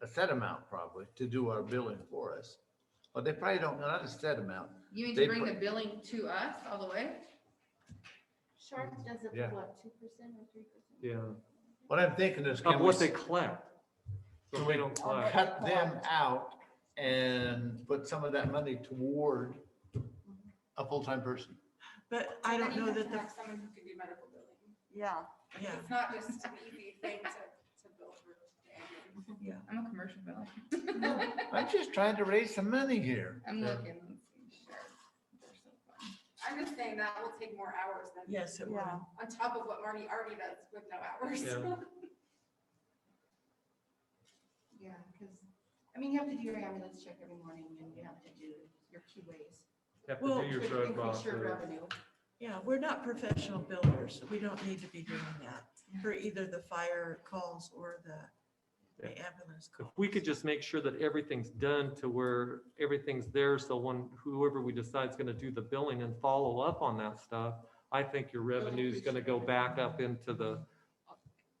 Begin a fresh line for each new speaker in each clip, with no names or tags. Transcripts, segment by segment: a set amount probably to do our billing for us. But they probably don't, not a set amount.
You mean
They
to bring
put-
the billing to us all the way?
Sharp does it,
Um, Yeah.
for what, two percent or three percent?
Yeah,
What I'm thinking is. can
of what
we-
they collect. So
Can
they
we-
don't collect.
cut them out and put some of that money toward a full-time person.
But I don't know that the,
Someone who can do medical billing.
yeah, yeah,
It's not just an easy thing to, to bill for.
yeah.
I'm a commercial biller.
I'm just trying to raise some money here.
I'm
Yeah.
looking. let's see, sure. They're so fun.
I'm just saying that will take more hours than,
Yes, it will.
Yeah.
on top of what Marty already does with no hours.
Yeah.
Yeah, because, I mean, you have to do your ambulance check every morning and you have to do your QAs.
Have
Well,
to do your
which
drug
increase
off.
your revenue.
Yeah, we're not professional builders. We don't need to be doing that for either the fire calls or the the ambulance
If
call.
we could just make sure that everything's done to where everything's there, so when whoever we decide's gonna do the billing and follow up on that stuff, I think your revenue's gonna go back up into the,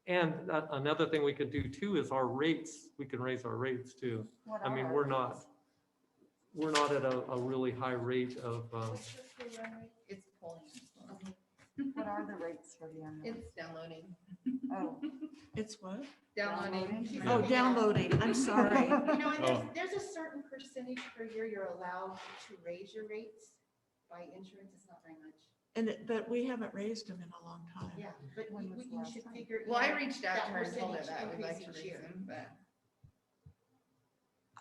and a- another thing we could do too is our rates, we can raise our rates too.
What
I mean,
are
we're
our
not-
rates?
We're not at a, a really high rate of, um,
What's your free run rate?
It's pulling. it's pulling.
What are the rates for the ambulance?
It's downloading,
Oh,
It's what?
downloading.
Downloading?
Oh, downloading. I'm sorry.
You know, and
Oh.
there's, there's a certain percentage per year you're allowed to raise your rates by insurance. It's not very much.
And, it- but we haven't raised them in a long time.
Yeah, but
When
you,
was
you
last
should
time?
figure.
Well, I
in
reached out
that
to her and told her
percentage
that we'd like to
increase
raise
each year.
them, but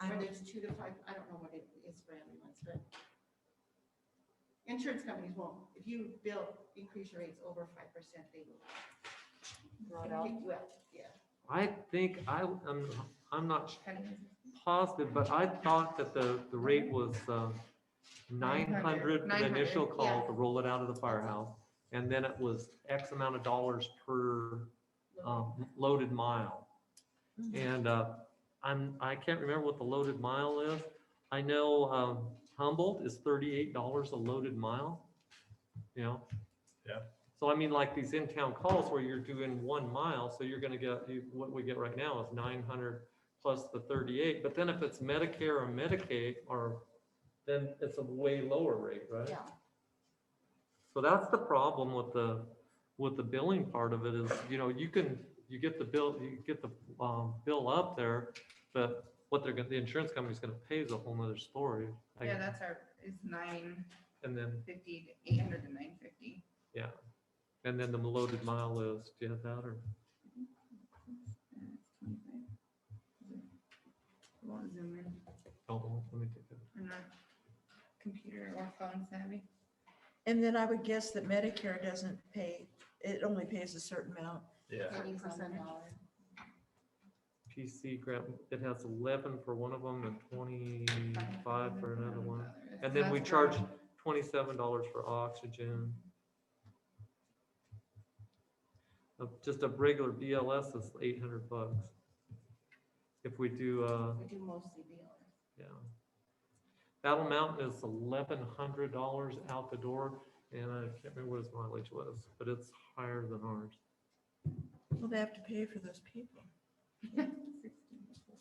I
Whether
don't-
it's two to five, I don't know what it is for ambulance, but insurance companies won't. If you bill, increase your rates over five percent, they will.
throw it
Well,
out.
yeah.
I think I, I'm, I'm not
kind of.
positive, but I thought that the, the rate was uh, nine
900,
hundred for the initial
900,
call
yeah.
to roll it out of the firehouse. And then it was X amount of dollars per um, loaded mile.
Mhm.
And uh, I'm, I can't remember what the loaded mile is. I know um, Humboldt is thirty-eight dollars a loaded mile, you know?
Yeah.
So I mean, like these in-town calls where you're doing one mile, so you're gonna get, you- what we get right now is nine hundred plus the thirty-eight, but then if it's Medicare or Medicaid, or, then it's a way lower rate, right?
Yeah.
So that's the problem with the, with the billing part of it is, you know, you can, you get the bill, you get the, um, bill up there, but what they're gonna, the insurance company's gonna pay is a whole nother story. I-
Yeah, that's our, it's nine
And then,
fifty to eight hundred to nine fifty.
and then the loaded mile is, do you have that or?
Won't zoom in.
Oh, let me take that.
I'm not computer or phone savvy.
And then I would guess that Medicare doesn't pay, it only pays a certain amount.
Yeah.
Eighty percent dollar.
PC grant, it has eleven for one of them and twenty-five for another one.
$500.
And then we
That's
charge
wrong.
twenty-seven dollars for oxygen. Uh, Just a regular BLS is eight hundred bucks. If we do, uh,
We do mostly BLS.
yeah. Battle Mountain is eleven hundred dollars out the door, and I can't remember what his mileage was, but it's higher than ours.
Well, they have to pay for those people.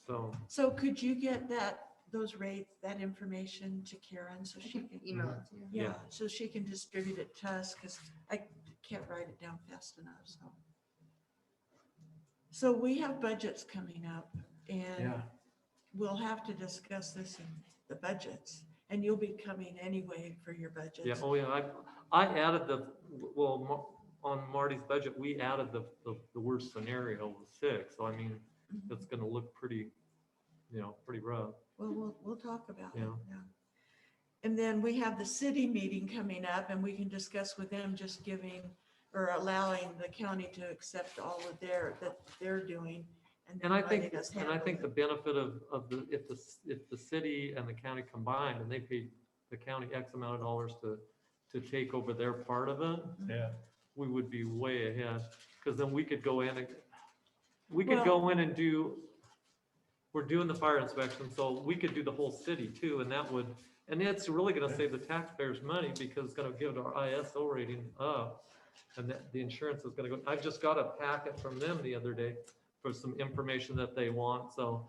So,
So could you get that, those rates, that information to Karen so she can?
Email it to you.
Yeah,
Yeah.
so she can distribute it to us, because I can't write it down fast enough, so. So we have budgets coming up, and
Yeah.
we'll have to discuss this in the budgets, and you'll be coming anyway for your budgets.
yeah, oh yeah, I, I added the, well, Mar- on Marty's budget, we added the, the the worst scenario was six, so I mean,
Mhm.
that's gonna look pretty, you know, pretty rough.
Well, we'll, we'll talk about it,
Yeah.
yeah. And then we have the city meeting coming up and we can discuss with them just giving or allowing the county to accept all of their, that they're doing. then
And I
letting
think,
us
and I
handle
think
it.
the benefit of, of the, if the, s- if the city and the county combined, and they paid the county X amount of dollars to, to take over their part of it,
Yeah.
we would be way ahead, because then we could go in and, we could
Well-
go in and do, we're doing the fire inspection, so we could do the whole city too, and that would, and it's really gonna save the taxpayers money, because it's gonna give our ISO rating up, and that, the insurance is gonna go, I've just got a packet from them the other day for some information that they want, so